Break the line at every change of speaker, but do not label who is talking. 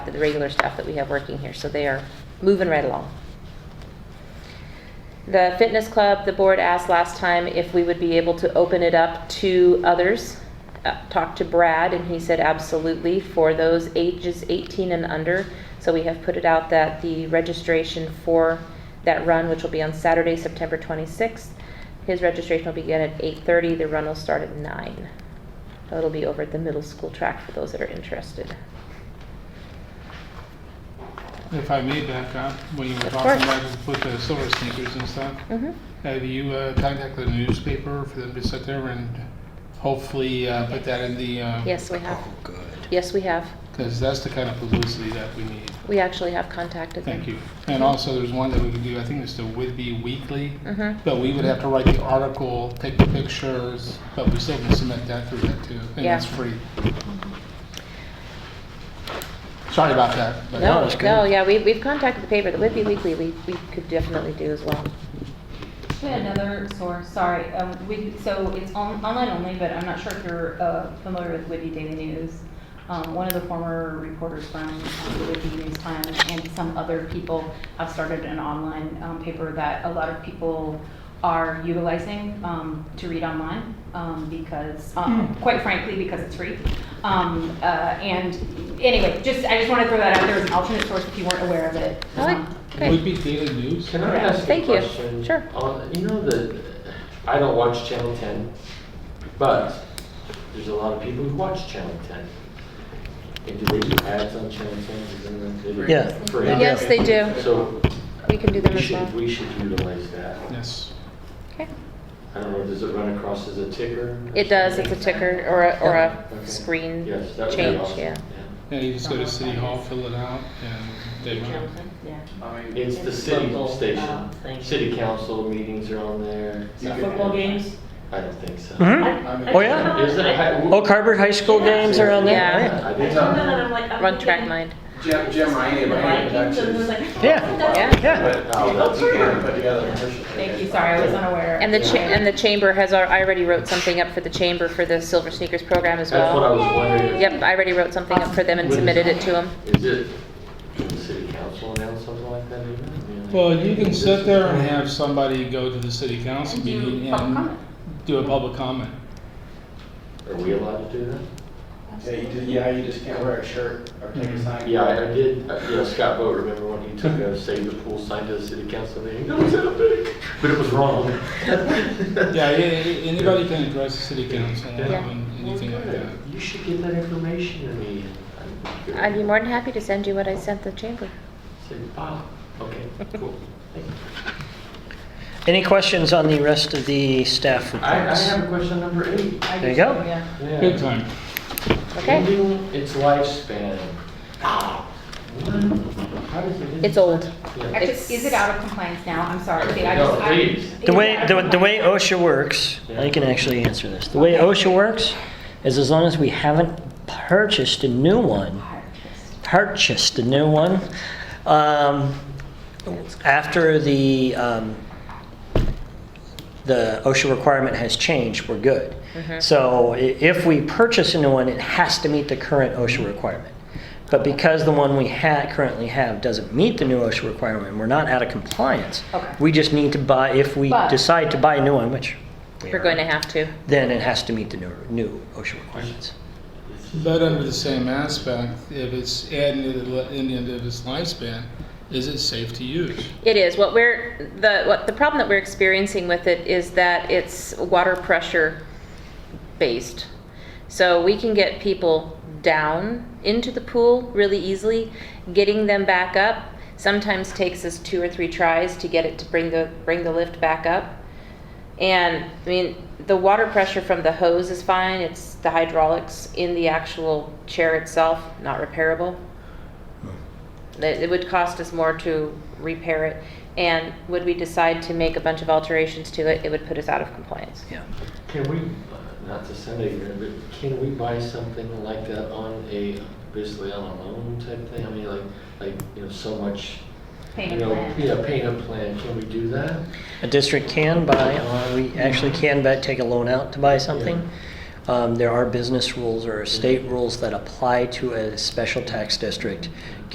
the regular staff that we have working here, so they are moving right along. The fitness club, the board asked last time if we would be able to open it up to others. Uh, Talked to Brad, and he said absolutely for those ages 18 and under. So we have put it out that the registration for that run, which will be on Saturday, September 26th, his registration will begin at 8:30, the run will start at 9. It'll be over at the middle school track for those that are interested.
If I may back up, when you were
Of
talking
course.
about with the silver sneakers and stuff,
Mhm.
have you uh, contacted the newspaper for them to sit there and hopefully uh, put that in the,
Yes, we have.
Oh, good.
Yes, we have.
because that's the kind of publicity that we need.
We actually have contacted them.
Thank you. And also, there's one that we could do, I think it's the Whitby Weekly,
Mhm.
but we would have to write the article, take the pictures, but we still can submit that through that too, and
Yeah.
that's free. Sorry about that. but-
No,
that's good.
no, yeah, we, we've contacted the paper, the Whitby Weekly, we, we could definitely do as well.
We had another source, sorry, um, we, so it's on, online only, but I'm not sure if you're, uh, familiar with Whitby Daily News. Um, one of the former reporters from um, the Whitby News Times and some other people have started an online, um, paper that a lot of people are utilizing, um, to read online, um, because,
Hmm.
um, quite frankly, because it's free. Um, uh, and anyway, just, I just wanna throw that out there as an alternate source if you weren't aware of it.
I like-
Um,
Okay.
Whitby Daily News?
Can I ask you a
Thank you.
question?
Sure.
On, you know the, I don't watch Channel 10, but there's a lot of people who watch Channel 10. And do they do ads on Channel 10? Is that what they do?
Yeah.
Free.
Yeah.
Yes, they do.
So
We can do them
we
as
should,
well.
we should utilize that.
Yes.
Okay.
I don't know, does it run across as a ticker? or
It does, it's
something?
a ticker or a, or
Okay.
a screen
Yes, that would be
change,
awesome.
yeah.
Yeah, you just go to City Hall, fill it out, and they run. it.
Yeah.
Yeah. It's the city
Local, uh,
station.
thing.
City council meetings are on there.
So
Um,
Football games?
I don't think so.
Mhm. Oh, yeah.
Is it? I-
Oak Harbor High School games are on there?
Yeah.
right?
I
I told
think so.
them that I'm like, I'm
Run track
thinking
mind.
Jim, Jim Ryan,
the
Ryan
Vikings, and
Productions.
was like.
Yeah.
that's-
Yeah.
But,
Yeah.
uh,
Oak
you can
Harbor.
put together-
Thank you, sorry, I was unaware.
And the cha, and the chamber has, al- I already wrote something up for the chamber for the Silver Sneakers program as
That's what I
well.
was wondering.
Yep, I already wrote something up for them and
What is-
submitted it to them.
Is it, can the city council announce something like that even? I mean,
Well, you can
is
sit
it-
there and have somebody go to the city council
And do
meeting
public
and
comment.
do a public comment.
Are we allowed to do that?
Yeah, you just, yeah, you just can't wear a shirt or take a sign.
Yeah, I I did, uh, yeah, Scott Boat, remember when he took a save the pool sign to the city council meeting? That was epic, but it was wrong.
Yeah, a- a- anybody can address the city council
Yeah.
on anything like that.
You should get that information to me.
I'd be more than happy to send you what I sent the chamber.
Say, wow, okay, cool, thank you.
Any questions on the rest of the staff
I, I
reports?
have a question number eight.
I
There you
do too,
go.
Yeah.
Yeah.
Good time.
Okay?
Ending its lifespan. What? How does it end?
It's old.
Yeah.
Actually, is it out of compliance now? I'm sorry. Kate, I
No,
just- I-
please.
Is
The
it
way,
out of
the, the way
compliance?
OSHA works, I can actually answer this. The way OSHA works is as long as we haven't purchased a new one, purchased a new one, um, after the, um, the OSHA requirement has changed, we're good.
Mm-hmm.
So i- if we purchase a new one, it has to meet the current OSHA requirement. But because the one we ha currently have doesn't meet the new OSHA requirement, we're not out of compliance.
Okay.
We just need to buy, if we
But-
decide to buy a new one, which we
We're
are,
going to have to.
Then it has to meet the new, new OSHA requirements.
But under the same aspect, if it's adding to the li- in the end of its lifespan, is it safe to use?
It is. What we're, the, what, the problem that we're experiencing with it is that it's water pressure based. So we can get people down into the pool really easily. Getting them back up sometimes takes us two or three tries to get it to bring the, bring the lift back up. And, I mean, the water pressure from the hose is fine, it's the hydraulics in the actual chair itself, not repairable. That it would cost us more to repair it, and would we decide to make a bunch of alterations to it, it would put us out of compliance.
Yeah.
Can we, uh, not to sound ignorant, but can we buy something like that on a, basically on a loan type thing? I mean, like, like, you know, so much, you
Payment
know,
plan.
yeah, paying a plan, can we do that?
A district can buy, uh, we actually can bet, take a loan out to buy something. Um, There are business rules or state rules that apply to a special tax district.